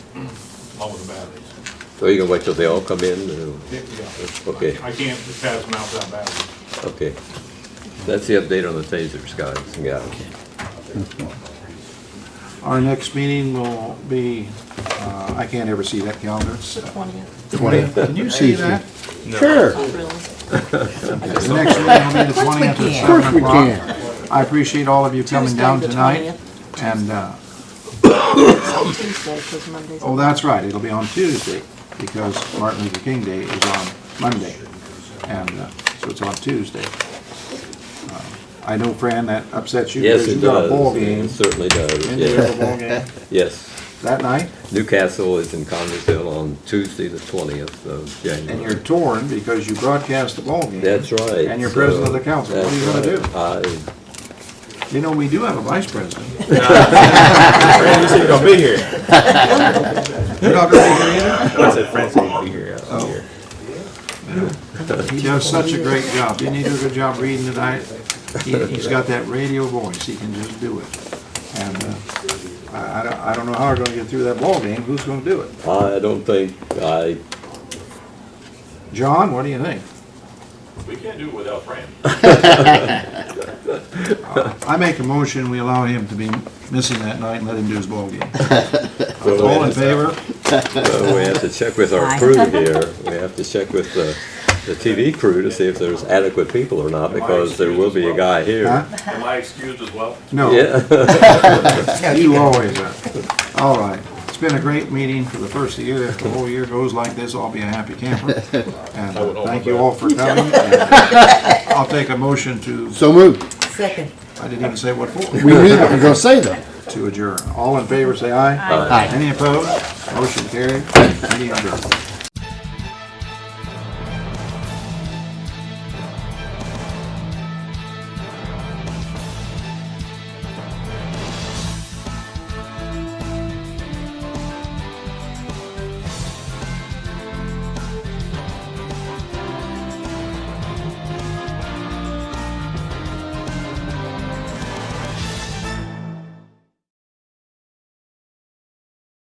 all of the batteries. So you're Oh, gonna wait till they all come in? or- Yeah. Okay. I can't just pass them out without batteries. Okay. That's the update on the tasers, guys and gals. Our next meeting will be, uh, I can't ever see that calendar. It's The twentieth. twentieth. Can you see that? Sure, Not really. The next meeting will be the twentieth at of course seven we o'clock. can. I appreciate all of you coming Tuesday, down the tonight. 20th. And, uh, Tuesday, because Monday's. oh, that's right, it'll be on Tuesday because Martin Luther King Day is on Monday. And, uh, so it's on Tuesday. Uh, I know, Fran, that upsets you Yes, because it you got a does. ball game. It certainly does, And you have yes. a ball game Yes. that night Newcastle is in Connersville on Tuesday, the twentieth of January. and you're torn because you broadcast the ball game. That's right. And you're president of the council. What are you gonna do? gonna do? You know, we do have a vice president. Francis ain't gonna be here. You're not gonna be here either? I said Francis ain't gonna be here. I was Oh. here. He does such a great job. Didn't he do a good job reading tonight? He, he's got that radio voice. He can just do it. And, uh, I, I don't, I don't know how we're gonna get through that ball game. Who's gonna do it? I don't think, I, John, what do you think? We can't do it without Fran. I make a motion, we allow him to be missing that night and let him do his ball game. so All in we- favor? so we have to check with our crew here. We have to check with the, the TV crew to see if there's adequate people or not, because there will be a guy Huh? here. Am I excused as well? No. Yeah, You always are. All right. It's been a great meeting for the first of the year. If the whole year goes like this, I'll be a happy camper. And uh, would hope thank you that. all for coming. And uh, I'll take a motion to, So moved. Second. I didn't even say what We for, knew that, we were gonna say that. to adjourn. All in favor, say aye. Aye. Any opposed? Motion carried. Meeting adjourned.